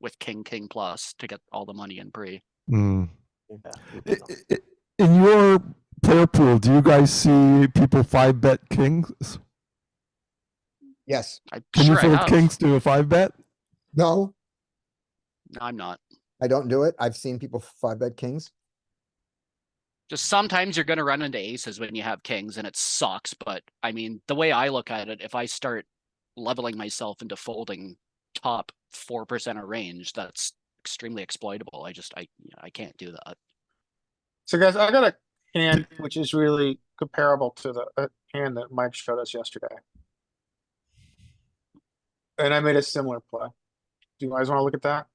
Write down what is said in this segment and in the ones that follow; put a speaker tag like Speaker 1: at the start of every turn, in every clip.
Speaker 1: with king, king plus to get all the money in pre.
Speaker 2: Mm.
Speaker 3: Yeah.
Speaker 2: I- I- I- In your player pool, do you guys see people five bet kings?
Speaker 4: Yes.
Speaker 1: I'm
Speaker 2: Can
Speaker 1: sure
Speaker 2: you
Speaker 1: I
Speaker 2: fold
Speaker 1: have.
Speaker 2: kings to a five bet?
Speaker 4: No,
Speaker 1: No, I'm not.
Speaker 4: I don't do it. I've seen people five bet kings.
Speaker 1: Just sometimes you're gonna run into aces when you have kings and it sucks, but I mean, the way I look at it, if I start leveling myself into folding top four percent of range, that's extremely exploitable. I just I I can't do that.
Speaker 5: So guys, I got a hand which is really comparable to the uh, hand that Mike showed us yesterday. And I made a similar play. Do you guys wanna look at that?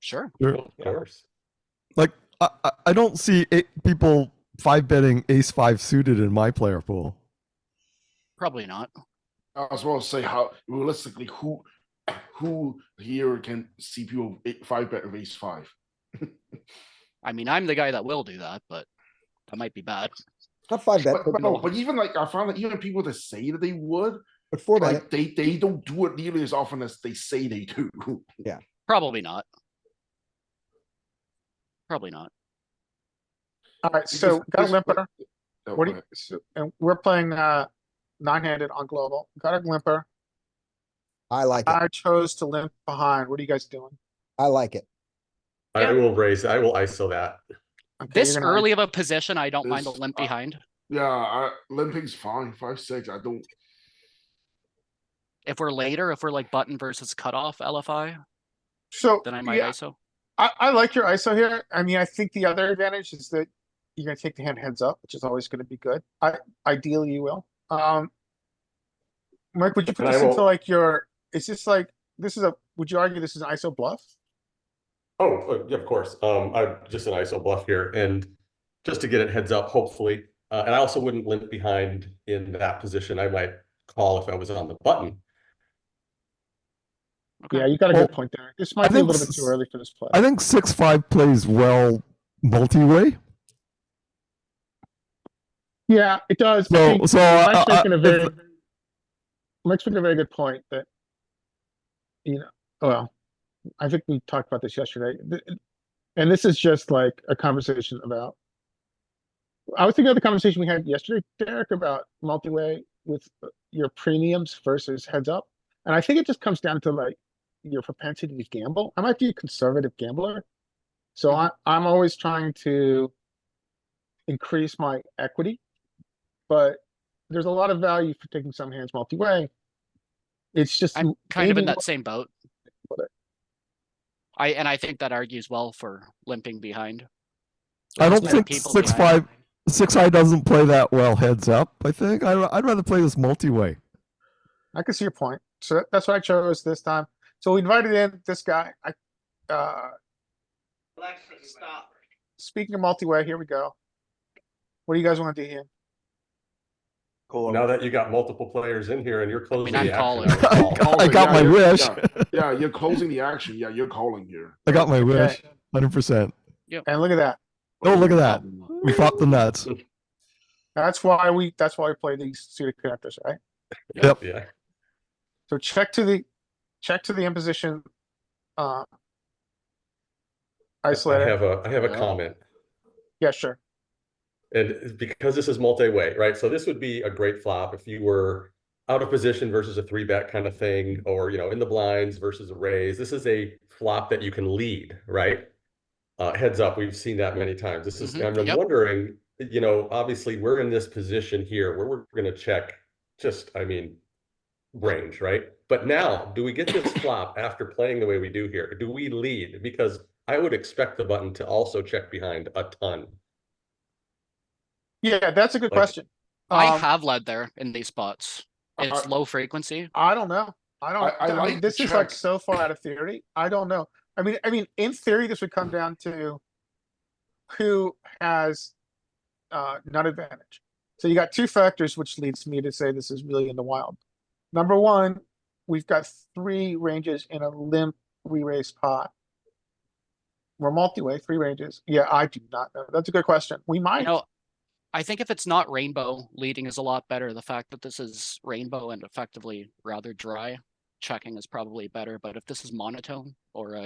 Speaker 1: Sure.
Speaker 2: Sure.
Speaker 3: Of course.
Speaker 2: Like I, I- I don't see eight people five betting ace five suited in my player pool.
Speaker 1: Probably not.
Speaker 6: I was about to say how realistically who who here can see people eight, five bet of ace five.
Speaker 1: I mean, I'm the guy that will do that, but that might be bad.
Speaker 4: Not five bet,
Speaker 6: But,
Speaker 4: but,
Speaker 6: but no, but even like I found that even people that say that they would,
Speaker 4: but four bet.
Speaker 6: like they they don't do it nearly as often as they say they do.
Speaker 1: Probably not. Probably not.
Speaker 5: Alright,
Speaker 6: Because
Speaker 5: so got a
Speaker 6: this-
Speaker 5: limper,
Speaker 6: Oh,
Speaker 5: what do you,
Speaker 6: but-
Speaker 5: so- and we're playing uh nine-handed on global, got a limper.
Speaker 4: I like it.
Speaker 5: I chose to limp behind. What are you guys doing?
Speaker 4: I like it.
Speaker 3: I will raise, I will ISO that.
Speaker 5: Okay, you're
Speaker 1: This
Speaker 5: gonna-
Speaker 1: early of a position, I don't mind a
Speaker 6: This-
Speaker 1: limp
Speaker 6: uh,
Speaker 1: behind.
Speaker 6: Yeah, I, limping's fine. Five six. I don't.
Speaker 1: If we're later, if we're like button versus cutoff LFI,
Speaker 5: So,
Speaker 1: then I might
Speaker 5: yeah,
Speaker 1: ISO.
Speaker 5: I, I like your ISO here. I mean, I think the other advantage is that you're gonna take the hand heads up, which is always gonna be good. I, ideally you will. Um. Mike, would you put
Speaker 3: And I
Speaker 5: this into
Speaker 3: will-
Speaker 5: like your, is this like, this is a, would you argue this is an ISO bluff?
Speaker 3: Oh, uh, yeah, of course. Um, I'm just an ISO bluff here and just to get it heads up, hopefully. Uh, and I also wouldn't limp behind in that position. I might call if I was on the button.
Speaker 1: Okay.
Speaker 5: Yeah, you got a
Speaker 2: Well,
Speaker 5: good point there. This might be a
Speaker 2: think
Speaker 5: little bit too
Speaker 2: s-
Speaker 5: early for this play.
Speaker 2: I think six five plays well multi-way.
Speaker 5: Yeah, it does. I
Speaker 2: So
Speaker 5: think
Speaker 2: so I,
Speaker 5: Mike's
Speaker 2: I-
Speaker 5: making a
Speaker 2: if-
Speaker 5: very, Mike's making a very good point that, you know, well, I think we talked about this yesterday, th- and this is just like a conversation about. I was thinking of the conversation we had yesterday, Derek, about multi-way with uh, your premiums versus heads up, and I think it just comes down to like your propensity to gamble. I might be a conservative gambler, so
Speaker 1: Mm-hmm.
Speaker 5: I I'm always trying to increase my equity, but there's a lot of value for taking some hands multi-way. It's just
Speaker 1: I'm kind of in
Speaker 5: maybe
Speaker 1: that same boat.
Speaker 5: Got it.
Speaker 1: I, and I think that argues well for limping behind.
Speaker 2: I don't
Speaker 1: There's
Speaker 2: think
Speaker 1: people
Speaker 2: six
Speaker 1: behind.
Speaker 2: five six high doesn't play that well heads up. I think I, I'd rather play this multi-way.
Speaker 5: I can see your point. So that- that's what I chose this time. So we invited in this guy. I, uh, speaking of multi-way, here we go. What do you guys want to do here?
Speaker 3: Well, Now that you got multiple players in here and you're closing
Speaker 1: I'm
Speaker 3: the
Speaker 1: calling.
Speaker 3: action. I would
Speaker 2: I
Speaker 3: call.
Speaker 2: got, I
Speaker 6: Oh,
Speaker 2: got
Speaker 6: yeah,
Speaker 2: my
Speaker 6: yeah,
Speaker 2: wish.
Speaker 6: yeah. Yeah, you're closing the action. Yeah, you're calling here.
Speaker 2: I got my wish.
Speaker 5: Okay,
Speaker 2: Hundred percent.
Speaker 5: And look at that.
Speaker 2: Oh, look at that. We flopped the nuts.
Speaker 5: That's why we, that's why we play these suited connectors, right?
Speaker 2: Yep.
Speaker 3: Yeah.
Speaker 5: So check to the, check to the imposition, uh,
Speaker 3: I
Speaker 5: isolator.
Speaker 3: have a, I have a
Speaker 6: Yeah.
Speaker 3: comment.
Speaker 5: Yeah, sure.
Speaker 3: And because this is multi-way, right? So this would be a great flop if you were out of position versus a three bet kind of thing, or you know, in the blinds versus a raise. This is a flop that you can lead, right? Uh, heads up, we've seen that many times. This is,
Speaker 1: Mhm,
Speaker 3: and I'm
Speaker 1: yep.
Speaker 3: wondering, you know, obviously we're in this position here where we're gonna check just, I mean, range, right? But now, do we get this flop after playing the way we do here? Do we lead? Because I would expect the button to also check behind a ton.
Speaker 5: Yeah, that's a good
Speaker 3: Like-
Speaker 5: question.
Speaker 1: I
Speaker 5: Um,
Speaker 1: have led there in these spots.
Speaker 5: Uh,
Speaker 1: It's
Speaker 6: I-
Speaker 1: low frequency.
Speaker 5: I don't know. I don't.
Speaker 6: I
Speaker 5: I, mean,
Speaker 6: like
Speaker 5: this is like
Speaker 6: Jack.
Speaker 5: so far out of theory. I don't know. I mean, I mean, in theory, this would come down to who has uh, nut advantage. So you got two factors, which leads me to say this is really in the wild. Number one, we've got three ranges in a limp re-raise pot. We're multi-way, three ranges. Yeah, I do not know. That's a good question. We
Speaker 1: You
Speaker 5: might.
Speaker 1: know, I think if it's not rainbow, leading is a lot better. The fact that this is rainbow and effectively rather dry, checking is probably better. But if this is monotone or a